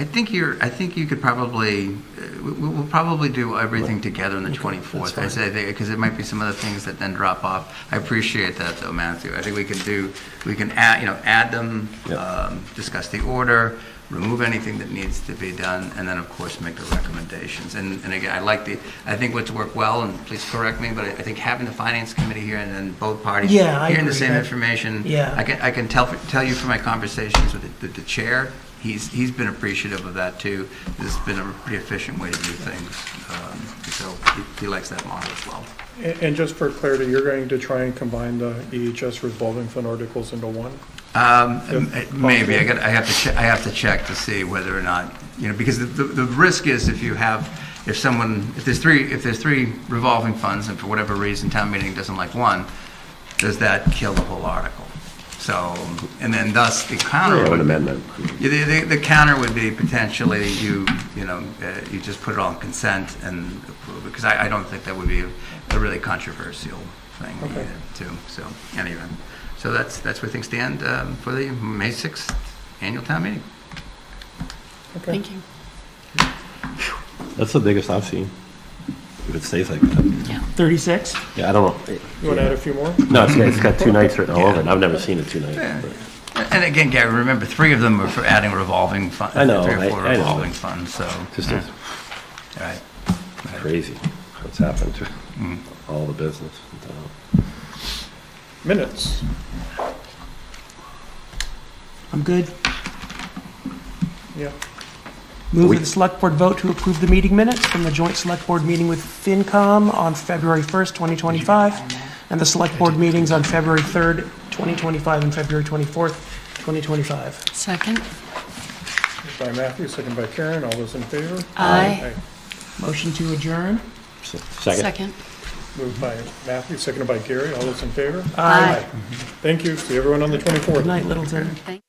I think you're, I think you could probably, uh, we- we'll probably do everything together on the 24th. I that's say, because it might be some other things that then drop off. I appreciate that though, Matthew. I think we can do, we can add, you know, add them, Yep. um, discuss the order, remove anything that needs to be done, and then of course make the recommendations. And, and again, I like the, I think what's worked well, and please correct me, but I I think having the finance committee here and then both parties Yeah, I hearing the agree. same That- information. Yeah. I can, I can tell, tell you from my conversations with the, the chair, he's, he's been appreciative of that too. This has been a pretty efficient way to do things. Um, So he- he likes that model as well. And and just for clarity, you're going to try and combine the EHS revolving fund articles into one? Um, m- Maybe, I got, I have to, che- I have to check to see whether or not, you know, because the, the the risk is if you have, if someone, if there's three, if there's three revolving funds and for whatever reason town meeting doesn't like one, does that kill the whole article? So, and then thus the counter. Or would an be- amendment. Yeah, The, the, the counter would be potentially you, you know, uh, you just put it on consent and approve it, because I, I don't think that would be a- a really controversial thing Okay. either, too, so, anyway. So that's, that's where things stand um, for the May 6th annual town meeting. Okay. Thank you. That's the biggest I've seen. If it stays like that. 36? Yeah, I don't know. You want to add a few more? No, it's, it's got two nights written all over it. I've never seen it two nights. Yeah. but- And again, Gary, remember, three of them were for adding revolving fund, I know, three I- or four I know. revolving funds, so, Just all is right. crazy what's happened to all the business. in town. Minutes. I'm good. Yeah. Move We- that the select board vote to approve the meeting minutes from the joint select board meeting with FinCom on February 1st, 2025, and the select board meetings on February 3rd, 2025, and February 24th, 2025. Second? Moved By Matthew, second by Karen, all those in favor? Aye. Motion to adjourn? So, Second. Second. Moved by Matthew, seconded by Gary, all those in favor? Aye. Thank you, see everyone on the 24th. Good night, Littleton. Thank-